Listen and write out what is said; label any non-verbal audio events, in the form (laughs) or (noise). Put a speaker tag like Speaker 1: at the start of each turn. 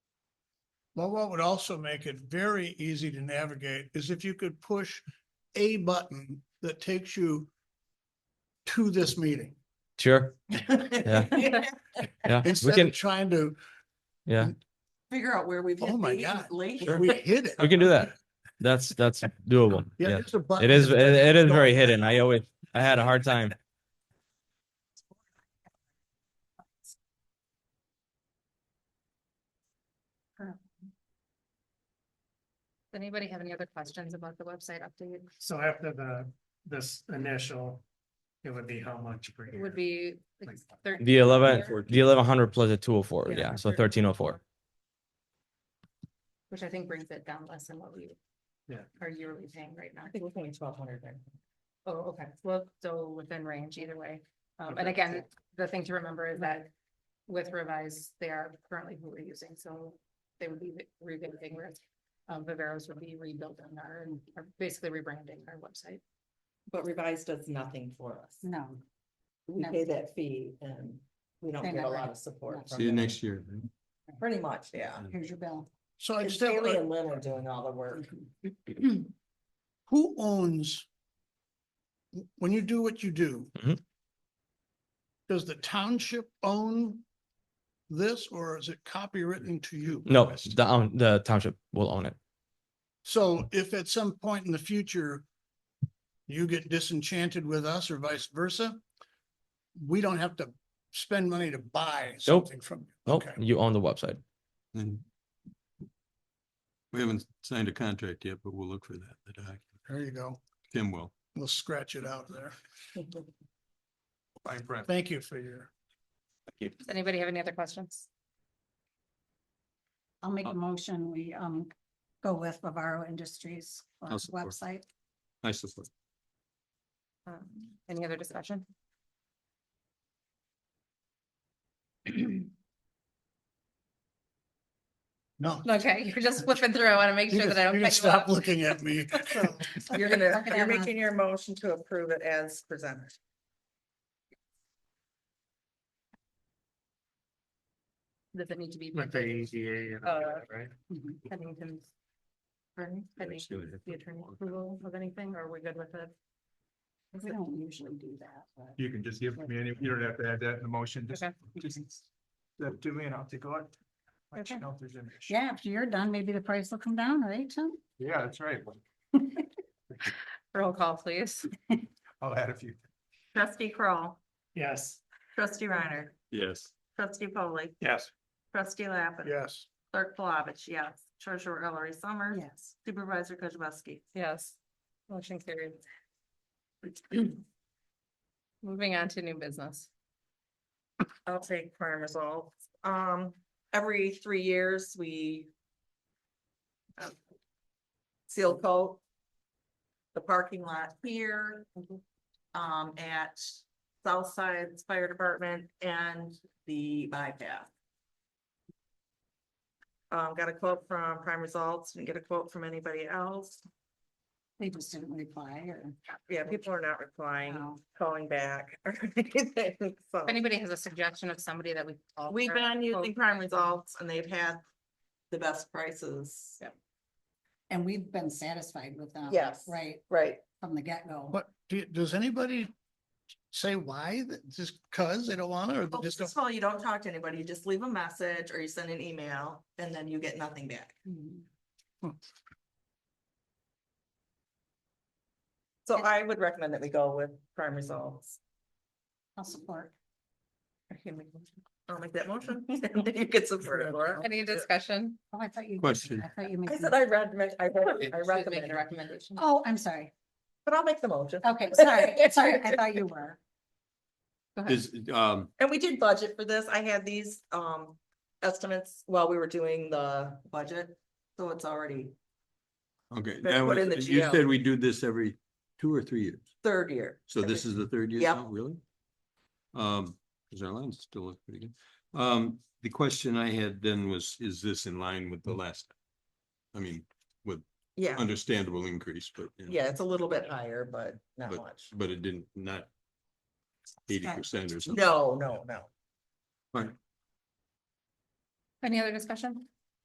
Speaker 1: Well, what would also make it very easy to navigate is if you could push a button that takes you to this meeting.
Speaker 2: Sure,
Speaker 3: (laughs)
Speaker 2: yeah, we
Speaker 1: Instead
Speaker 2: can,
Speaker 1: of trying to,
Speaker 2: yeah,
Speaker 3: Figure out where we've
Speaker 1: Oh
Speaker 3: hit
Speaker 1: my
Speaker 3: these
Speaker 1: God.
Speaker 3: lately. (laughs)
Speaker 1: we hit it.
Speaker 2: we can do that. That's, that's doable.
Speaker 1: (laughs) Yeah,
Speaker 2: Yeah,
Speaker 1: just a button.
Speaker 2: it is, it it is very hidden. I always, I had a hard time.
Speaker 4: Does anybody have any other questions about the website update?
Speaker 5: So after the, this initial, it would be how much per
Speaker 4: It
Speaker 5: year?
Speaker 4: would be like thirteen.
Speaker 2: The eleven,
Speaker 4: year,
Speaker 2: the eleven hundred plus a two oh four,
Speaker 4: Yeah,
Speaker 2: yeah, so
Speaker 4: 13.
Speaker 2: thirteen oh four.
Speaker 4: Which I think brings it down less than what we
Speaker 5: Yeah.
Speaker 4: are yearly paying right now.
Speaker 3: I think we're paying twelve hundred there.
Speaker 4: Oh, okay, well, so within range either way. Um, and
Speaker 5: Okay.
Speaker 4: again, the thing to remember is that with revise, they are currently who we're using, so they would be rebuilding, whereas um, Viveros would be rebuilding our, or basically rebranding our website.
Speaker 3: But Revise does nothing for us.
Speaker 4: No.
Speaker 3: We
Speaker 4: No.
Speaker 3: pay that fee and we don't
Speaker 4: They're
Speaker 3: get a
Speaker 4: not
Speaker 3: lot
Speaker 4: right.
Speaker 3: of support.
Speaker 4: No.
Speaker 3: from them.
Speaker 6: year.
Speaker 3: Pretty much, yeah.
Speaker 2: Um,
Speaker 4: Here's your bill.
Speaker 1: So uh I
Speaker 3: It's
Speaker 1: just, have
Speaker 3: Haley
Speaker 1: a-
Speaker 3: and Lynn are doing all the
Speaker 7: (laughs)
Speaker 3: work. Hmm.
Speaker 1: who owns? When you do what you do.
Speaker 2: Mhm.
Speaker 1: Does the township own this or is it copywritten to you?
Speaker 2: No, the, own- the township will own it.
Speaker 1: So if at some point in the future you get disenchanted with us or vice versa, we don't have to spend money to buy something from you.
Speaker 2: Nope,
Speaker 1: Okay.
Speaker 2: Oh, you own the website.
Speaker 6: And we haven't signed a contract yet, but we'll look for that, the document.
Speaker 1: There you go.
Speaker 6: Tim will.
Speaker 1: We'll scratch it out there. Thank you for your.
Speaker 4: Does anybody have any other questions?
Speaker 7: I'll make a motion, we um go with Bavaro Industries for
Speaker 6: I'll support.
Speaker 7: website.
Speaker 6: I support.
Speaker 4: Um, any other discussion?
Speaker 1: No.
Speaker 4: Okay, (laughs) you're just flipping through. I want to make
Speaker 1: You
Speaker 4: sure
Speaker 1: can
Speaker 4: that I
Speaker 1: you can
Speaker 4: don't cut you off.
Speaker 1: stop looking at me. (laughs)
Speaker 3: You're (laughs) gonna,
Speaker 7: Okay,
Speaker 3: you're
Speaker 7: I'm on.
Speaker 3: making your motion to approve it as presented.
Speaker 4: Does it need to be?
Speaker 5: With the
Speaker 4: Uh,
Speaker 5: EDA and all that, right?
Speaker 4: Pennington's. attorney- Pennington's The attorney approval of anything, or are we good with it?
Speaker 7: We don't usually do that, but
Speaker 8: You can just give me any, you don't have to add that in the motion, just,
Speaker 4: Okay.
Speaker 8: just step to me and I'll take a look. Let you
Speaker 7: Okay.
Speaker 8: know if there's an issue.
Speaker 7: yeah, after you're done, maybe the price will come down, right, Tim?
Speaker 8: Yeah, that's right.
Speaker 4: Roll call, please.
Speaker 8: I'll add a few.
Speaker 9: Trustee Kroll,
Speaker 5: Yes.
Speaker 9: trustee Reiner,
Speaker 6: Yes.
Speaker 9: trustee Foley,
Speaker 8: Yes.
Speaker 9: trustee Lappin.
Speaker 1: Yes.
Speaker 9: Clerk Flavich, yes. Treasurer Ellery Summers.
Speaker 7: Yes.
Speaker 9: Supervisor Kozibowski.
Speaker 4: Yes. Motion carried. (clears throat) Moving on to new business.
Speaker 9: I'll take prime resolve. Um, every three years, we um, seal coat the parking lot here, um, at Southside's Fire Department and the bypass. Um, got a quote from Prime Results, didn't get a quote from anybody else.
Speaker 7: They just didn't reply or. Oh.
Speaker 9: Yeah, people are not replying,
Speaker 7: No.
Speaker 9: calling back. or (laughs) anything, so.
Speaker 4: If anybody has a suggestion of somebody that we. could call
Speaker 9: We've
Speaker 4: for-
Speaker 9: been
Speaker 4: Oh,
Speaker 9: using Prime Results and they've had the best prices.
Speaker 7: And we've been satisfied with them.
Speaker 3: Yes.
Speaker 7: Right,
Speaker 3: Right.
Speaker 7: from the get-go.
Speaker 1: What, do you- does anybody say why? That- Just cause they don't want it or they
Speaker 9: Well,
Speaker 1: just
Speaker 9: First
Speaker 1: don't?
Speaker 9: of all, you don't talk to anybody, you just leave a message or you send an email and then you get nothing back.
Speaker 7: Mhm.
Speaker 9: So I would recommend that we go with Prime Results.
Speaker 7: I'll support.
Speaker 9: I'll make that motion. (laughs) You could support it, Laura.
Speaker 4: Any discussion?
Speaker 7: Oh, I thought you.
Speaker 6: Question.
Speaker 7: I thought you. made
Speaker 9: I said
Speaker 7: the-
Speaker 9: I read, I read, I
Speaker 4: Should make
Speaker 9: recommend,
Speaker 4: a recommendation.
Speaker 7: Oh, I'm sorry.
Speaker 9: but I'll make the motion.
Speaker 7: Okay, sorry, sorry, I thought you were.
Speaker 6: Is, um,
Speaker 9: And we did budget for this. I had these um estimates while we were doing the budget, so it's already
Speaker 6: okay,
Speaker 9: Better
Speaker 6: that
Speaker 9: put in the
Speaker 6: was, you
Speaker 9: GL.
Speaker 6: said we do this every two or three years.
Speaker 9: third year.
Speaker 6: So this is the third year
Speaker 9: Yep.
Speaker 6: now, really? Um, cause our lines still look pretty good. Um, the question I had then was, is this in line with
Speaker 9: Mm-hmm.
Speaker 6: the last? I mean,
Speaker 9: Yeah,
Speaker 6: understandable increase, but. you know,
Speaker 9: yeah, it's a little bit higher, but not much.
Speaker 6: But it didn't, not eighty percent or something.
Speaker 9: No, no, no.
Speaker 6: Right.
Speaker 4: Any other discussion?